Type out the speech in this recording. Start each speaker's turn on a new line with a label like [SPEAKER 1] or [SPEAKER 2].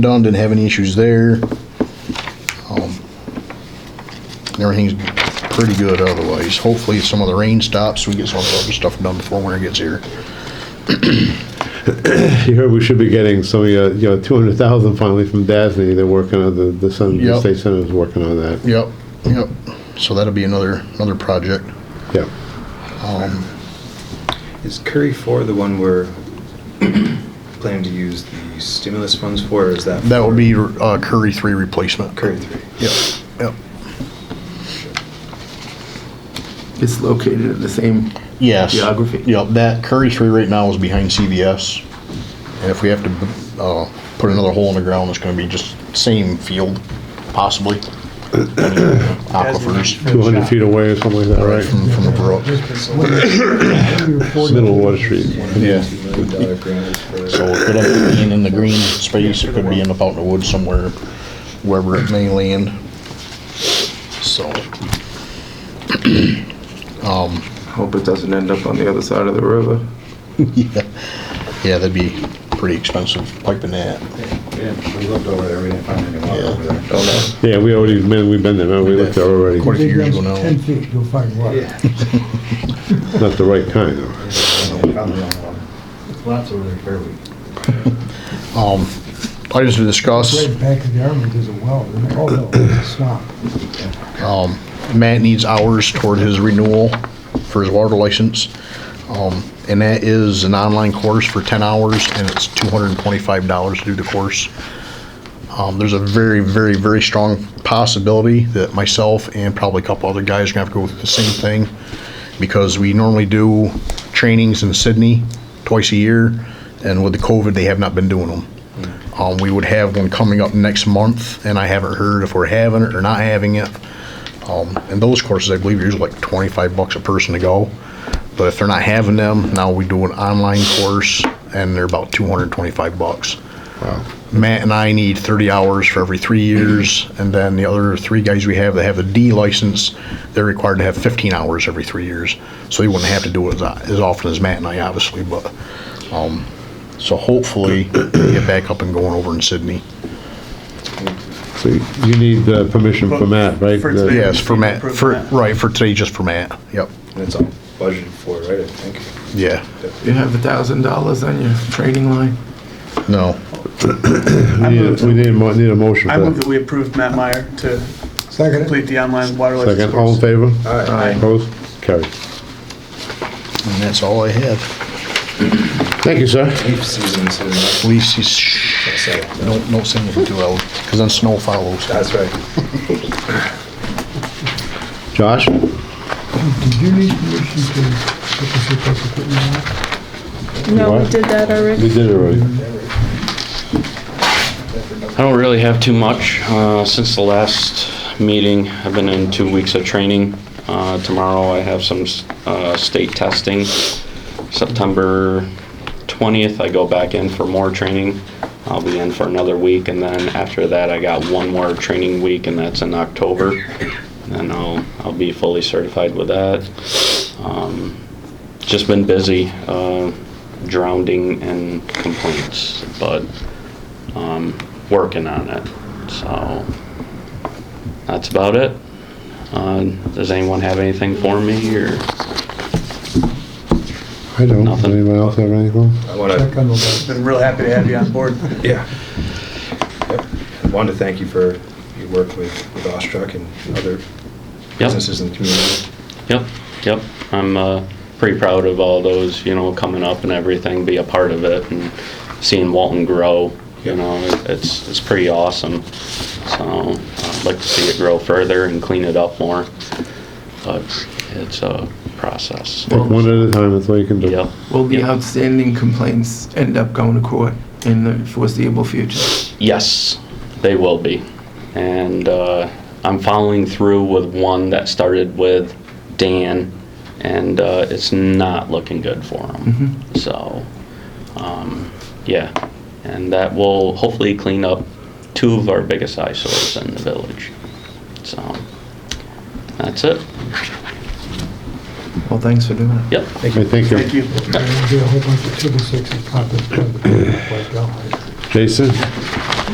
[SPEAKER 1] done, didn't have any issues there. Um, Everything's pretty good otherwise. Hopefully some of the rain stops, we get some of the other stuff done before winter gets here.
[SPEAKER 2] You heard we should be getting some of your, you know, two hundred thousand finally from DASNY. They're working on the, the Sun, the
[SPEAKER 1] Yep.
[SPEAKER 2] state senate is working on that.
[SPEAKER 1] Yep, yep. So that'll be another, another project.
[SPEAKER 2] Yeah.
[SPEAKER 3] Is Curry Four the one we're planning to use the stimulus funds for, or is that?
[SPEAKER 1] That
[SPEAKER 3] for
[SPEAKER 1] would be uh, Curry Three replacement.
[SPEAKER 3] Curry Three.
[SPEAKER 1] Yep, yep.
[SPEAKER 4] It's located in the same.
[SPEAKER 1] Yes.
[SPEAKER 4] Geography.
[SPEAKER 1] Yep, that Curry Three right now is behind CVS. And if we have to, uh, put another hole in the ground, it's gonna be just same field, possibly. Aquifers.
[SPEAKER 2] Two hundred feet away or something like that,
[SPEAKER 1] Right,
[SPEAKER 2] right?
[SPEAKER 1] from, from a brook.
[SPEAKER 2] Middle of Water Street.
[SPEAKER 1] Yeah.
[SPEAKER 3] Two million dollar grant for.
[SPEAKER 1] So it could end up being in the green space, it could be in the out in the woods somewhere, wherever it may land. So,
[SPEAKER 4] Hope it doesn't end up on the other side of the river.
[SPEAKER 1] yeah, yeah, that'd be pretty expensive piping that.
[SPEAKER 5] Yeah, we looked over there, we didn't find any water over there.
[SPEAKER 3] Oh,
[SPEAKER 2] Yeah, we already, man, we've been there, man. We looked there already.
[SPEAKER 1] Quite a few years ago now.
[SPEAKER 5] Ten feet, you'll find water.
[SPEAKER 2] Not the right kind though.
[SPEAKER 5] Lots over there, fairly.
[SPEAKER 1] Um, I just discussed,
[SPEAKER 5] Right back of the army, there's a well, oh no, it's a swamp.
[SPEAKER 1] um, Matt needs hours toward his renewal for his water license. Um, and that is an online course for ten hours and it's two hundred and twenty-five dollars to do the course. Um, there's a very, very, very strong possibility that myself and probably a couple other guys are gonna have to go with the same thing. Because we normally do trainings in Sydney twice a year and with the COVID, they have not been doing them. Um, we would have one coming up next month and I haven't heard if we're having it or not having it. Um, and those courses, I believe, are usually like twenty-five bucks a person to go. But if they're not having them, now we do an online course and they're about two hundred and twenty-five bucks. Matt and I need 30 hours for every three years, and then the other three guys we have that have the D license, they're required to have 15 hours every three years. So they wouldn't have to do it as, as often as Matt and I, obviously, but, um, so hopefully we get back up and going over in Sydney.
[SPEAKER 2] So you you need uh, permission from Matt, right? Uh,
[SPEAKER 6] For
[SPEAKER 2] The-
[SPEAKER 6] today.
[SPEAKER 1] Yes, for Matt, for, right, for today, just for Matt, yep,
[SPEAKER 3] And it's all budgeted for, right, I think?
[SPEAKER 1] yeah,
[SPEAKER 4] You have a thousand dollars on your trading line?
[SPEAKER 1] no,
[SPEAKER 2] We need, a- we need a, mo- need a motion
[SPEAKER 6] I
[SPEAKER 2] for
[SPEAKER 6] move that
[SPEAKER 2] that.
[SPEAKER 6] we approve Matt Meyer to
[SPEAKER 5] Second,
[SPEAKER 6] complete the online water license
[SPEAKER 2] Second, all in
[SPEAKER 6] course.
[SPEAKER 2] favor?
[SPEAKER 3] Aye.
[SPEAKER 2] Opposed? Carried.
[SPEAKER 1] and that's all I have.
[SPEAKER 2] Thank you, sir.
[SPEAKER 3] Leaf season soon, right?
[SPEAKER 1] Please, shh,
[SPEAKER 3] So,
[SPEAKER 1] don't, don't sing it too loud, because then snow follows.
[SPEAKER 3] That's right.
[SPEAKER 2] Josh?
[SPEAKER 5] did you need permission to put the surplus equipment on?
[SPEAKER 7] No, we
[SPEAKER 2] What?
[SPEAKER 7] did that
[SPEAKER 2] We
[SPEAKER 7] already.
[SPEAKER 2] did it already.
[SPEAKER 8] I don't really have too much. Uh, Since the last meeting, I've been in two weeks of training. Uh, Tomorrow, I have some s- uh, state testing. September 20th, I go back in for more training. I'll be in for another week, and then after that, I got one more training week, and that's in October. And I'll, I'll be fully certified with that. Um, Just been busy, uh, drowning in complaints, but um, working on it. So that's about it. Uh, does anyone have anything for me or?
[SPEAKER 2] I don't. Does
[SPEAKER 8] Nothing.
[SPEAKER 2] Anybody else have anything?
[SPEAKER 3] I wanna,
[SPEAKER 5] Check on the well.
[SPEAKER 6] Been real happy to have you on board.
[SPEAKER 3] yeah. Yep. I Wanted to thank you for your work with, with Ostrich and other
[SPEAKER 8] Yep,
[SPEAKER 3] businesses in the community.
[SPEAKER 8] yep, yep. I'm uh, pretty proud of all those, you know, coming up and everything, be a part of it and seeing Walton grow. You know, it's it's pretty awesome. So I'd like to see it grow further and clean it up more, but it's a process.
[SPEAKER 2] Take one at a time, that's all you can do.
[SPEAKER 8] Yep.
[SPEAKER 4] Will the
[SPEAKER 8] Yeah.
[SPEAKER 4] outstanding complaints end up going to court in the foreseeable future?
[SPEAKER 8] Yes, they will be. And uh, I'm following through with one that started with Dan, and uh, it's not looking good for him. So, um, yeah, and that will hopefully clean up two of our biggest eyesores in the village. So, that's it.
[SPEAKER 4] Well, thanks for doing it.
[SPEAKER 8] Yep.
[SPEAKER 2] Hey, Thank you.
[SPEAKER 6] Thank you.
[SPEAKER 5] There'll be a whole bunch of triple sixes popping. up. Like, oh, I-
[SPEAKER 2] Jason?